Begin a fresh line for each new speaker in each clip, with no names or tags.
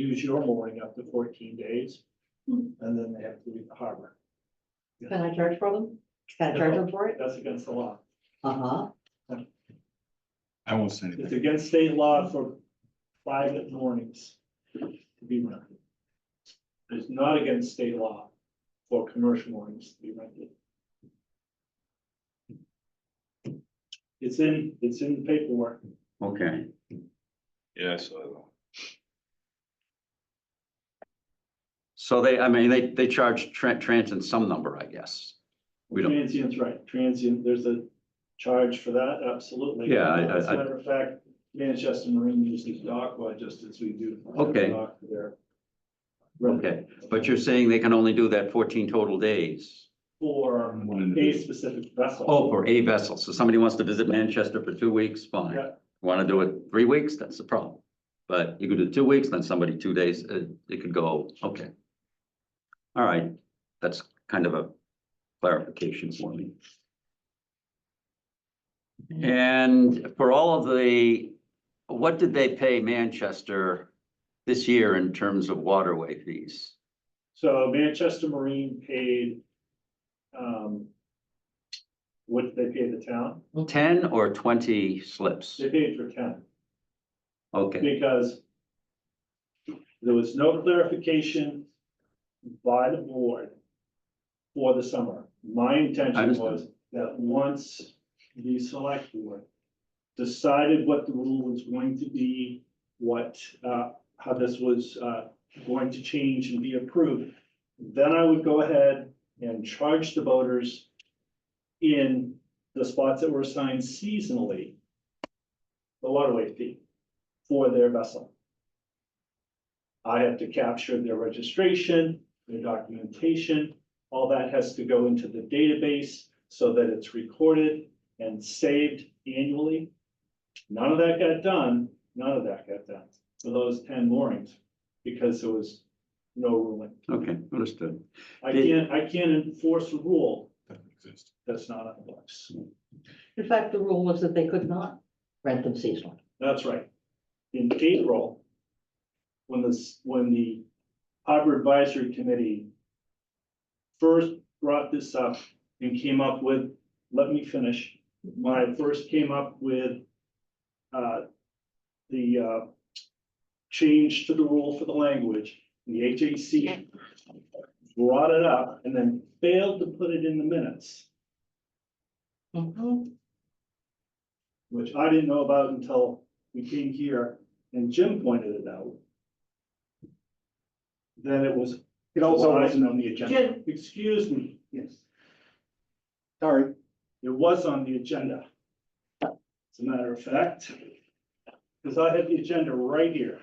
use your mooring up to fourteen days, and then they have to leave the harbor.
Can I charge for them? Can I charge them for it?
That's against the law.
Uh-huh.
I won't say anything.
It's against state law for private moorings to be rented. It's not against state law for commercial moorings to be rented. It's in, it's in the paperwork.
Okay,
Yeah, so.
so they, I mean, they, they charge tran- transit some number, I guess. We don't,
Transient's right, transient, there's a charge for that, absolutely.
Yeah, I- I-
As a matter of fact, Manchester Marine uses Aqua just as we do.
Okay.
dock for their-
okay, but you're saying they can only do that fourteen total days?
For a specific vessel.
Oh, for a vessel, so somebody wants to visit Manchester for two weeks, fine.
Yeah.
Want to do it three weeks, that's the problem. But you could do two weeks, then somebody two days, uh, it could go, okay. All right, that's kind of a clarification for me. And for all of the, what did they pay Manchester this year in terms of waterway fees?
So Manchester Marine paid, um, what did they pay the town?
Ten or twenty slips?
They paid for ten,
Okay,
because there was no clarification by the board for the summer. My
I
intention
understand.
was that once the select board decided what the rule was going to be, what, uh, how this was, uh, going to change and be approved, then I would go ahead and charge the boaters in the spots that were assigned seasonally the waterway fee for their vessel. I have to capture their registration, their documentation, all that has to go into the database so that it's recorded and saved annually. None of that got done, none of that got done for those ten moorings, because there was no ruling.
okay, understood.
I
Did-
can't, I can't enforce a rule that's not on the books.
In fact, the rule was that they could not rent them seasonally.
That's right. In April, when this, when the harbor advisory committee first brought this up and came up with, let me finish, when I first came up with uh, the uh, change to the rule for the language, the HAC brought it up and then failed to put it in the minutes.
Mhm.
which I didn't know about until we came here and Jim pointed it out. Then it was.
It also wasn't on the agenda.
Jim, excuse me. Yes.
Sorry.
It was on the agenda. As a matter of fact, because I have the agenda right here.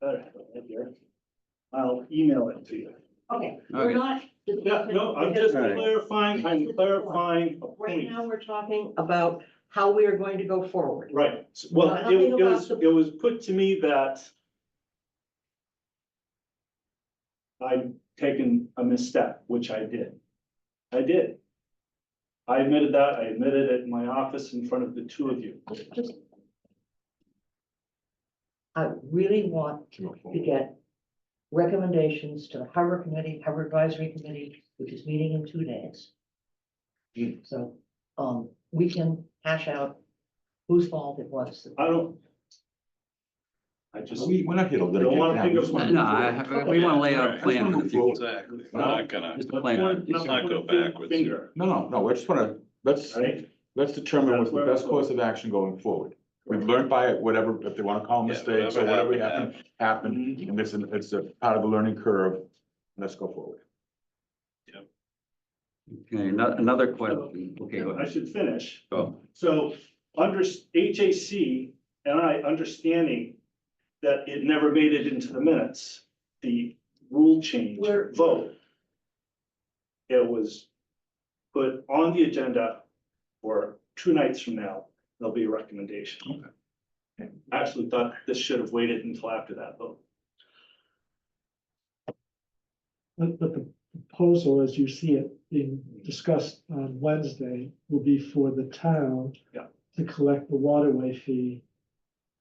Better have it right here. I'll email it to you.
Okay, we're
Okay.
not.
Yeah, no, I'm just clarifying, I'm clarifying a
Right
point.
now, we're talking about how we are going to go forward.
Right, s- well,
Well,
it
nothing
it was,
about
it was put to me that I'd taken a misstep, which I did. I did. I admitted that, I admitted it in my office in front of the two of you.
Just- I really want to get recommendations to the harbor committee, harbor advisory committee, which is meeting in two days. So, um, we can hash out whose fault it was.
I don't. I just,
We, we're not here to
don't wanna pick up my-
litigate.
No, I have- we want to lay out a plan for the future.
Exactly, we're not gonna,
Just a
let's
plan.
point- let's
not
point
go
a fin-
backwards here.
Finger,
No, no, no, I just wanna, let's,
right?
let's determine
That's
what's the
where we're
best course of action going forward. We've learned by it, whatever, if they wanna call them
Yeah,
mistakes or
whatever
whatever
happened,
happened, happened,
Mm-hmm.
and this, is- it's a part of the learning curve. Let's go forward.
Okay, ano- another question. Okay, go
I
ahead.
should finish.
Go.
So under HAC and I understanding that it never made it into the minutes, the rule change
Where-
vote. It was put on the agenda for two nights from now, there'll be a recommendation. I Actually thought this should have waited until after that vote.
But, but the proposal, as you see it being discussed on Wednesday, will be for the town
Yeah.
to collect the waterway fee